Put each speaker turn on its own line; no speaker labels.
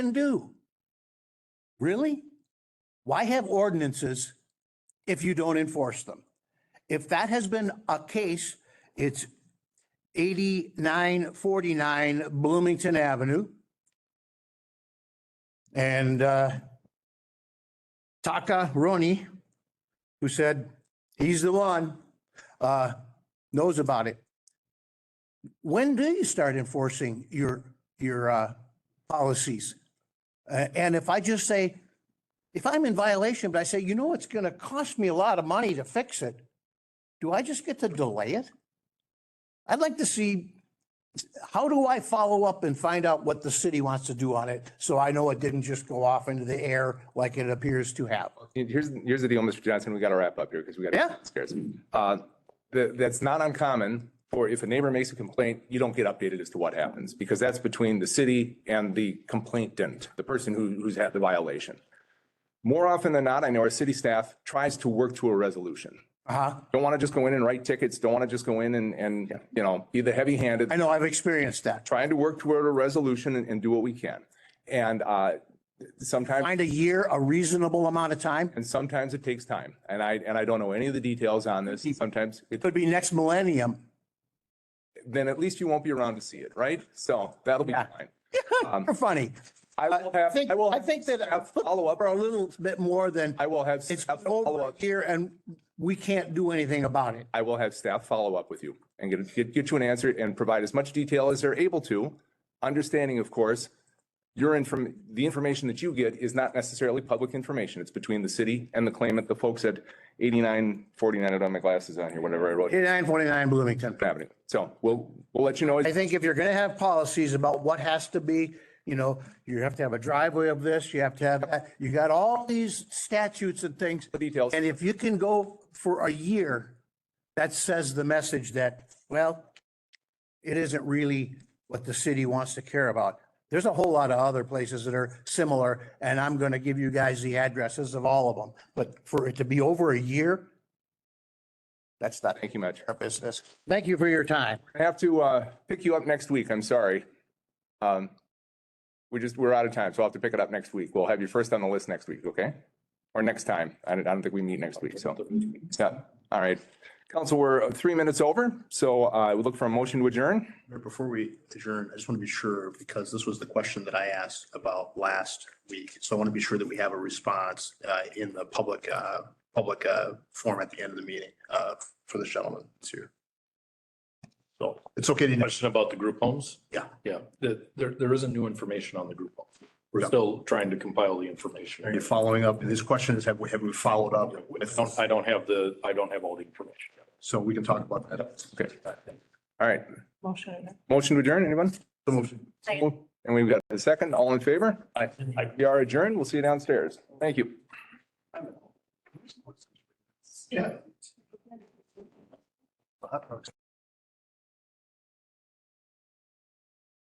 can do. Really? Why have ordinances if you don't enforce them? If that has been a case, it's 8949 Bloomington Avenue. And uh, Taka Roni, who said he's the one, uh, knows about it. When do you start enforcing your, your uh, policies? Uh, And if I just say, if I'm in violation, but I say, you know, it's going to cost me a lot of money to fix it, do I just get to delay it? I'd like to see, how do I follow up and find out what the city wants to do on it? So I know it didn't just go off into the air like it appears to have.
And Here's, here's the deal, Mr. Johnson, we got to wrap up here because we got.
Yeah.
Scares. Uh, That, that's not uncommon for if a neighbor makes a complaint, you don't get updated as to what happens because that's between the city and the complainant, the person who, who's had the violation. More often than not, I know our city staff tries to work to a resolution.
Uh-huh.
Don't want to just go in and write tickets, don't want to just go in and, and, you know, be the heavy handed
I know, I've experienced that.
trying to work toward a resolution and, and do what we can. And uh, sometimes,
Find a year, a reasonable amount of time.
and sometimes it takes time. And I, and I don't know any of the details on this.
Mm-hmm.
Sometimes, it-
Could be next millennium.
then at least you won't be around to see it, right? So that'll be
Yeah.
fine. Um,
You're funny.
I will
I
have,
think,
I will.
I think that
have follow up.
for a little bit more than
I will have
it's
staff follow
over
up.
here and we can't do anything about it.
I will have staff follow up with you and get, get, get you an answer and provide as much detail as they're able to. Understanding, of course, your inform, the information that you get is not necessarily public information. It's between the city and the claimant, the folks at eighty-nine, forty-nine, I don't have my glasses on here, whatever I wrote.
8949 Bloomington.
Avenue. So we'll, we'll let you know.
I think if you're going to have policies about what has to be, you know, you have to have a driveway of this, you have to have that, you got all these statutes and things.
the details.
And if you can go for a year, that says the message that, well, it isn't really what the city wants to care about. There's a whole lot of other places that are similar, and I'm going to give you guys the addresses of all of them. But for it to be over a year, that's not
Thank you much.
our business. Thank you for your time.
I have to uh, pick you up next week. I'm sorry. Um, We just, we're out of time, so I'll have to pick it up next week. We'll have you first on the list next week, okay? Or next time. I don't, I don't think we meet next week, so. Yeah, all right. Council, we're three minutes over, so uh, I would look for a motion to adjourn.
Mayor, Before we adjourn, I just want to be sure, because this was the question that I asked about last week. So I want to be sure that we have a response uh, in the public, uh, public uh, forum at the end of the meeting uh, for this gentleman that's here. So it's okay to,
Question about the group homes?
Yeah.
Yeah, the- there, there isn't new information on the group homes. We're
Yeah.
still trying to compile the
are
information.
you following up? His question is, have we, have we followed up with,
I don't- I don't have the, I don't have all the information.
so we can talk about that.
Okay. All right,
Motion.
motion to adjourn, anyone?
The motion.
And we've got a second, all in favor?
I, I
We are adjourned. We'll see you downstairs. Thank you.
Yeah.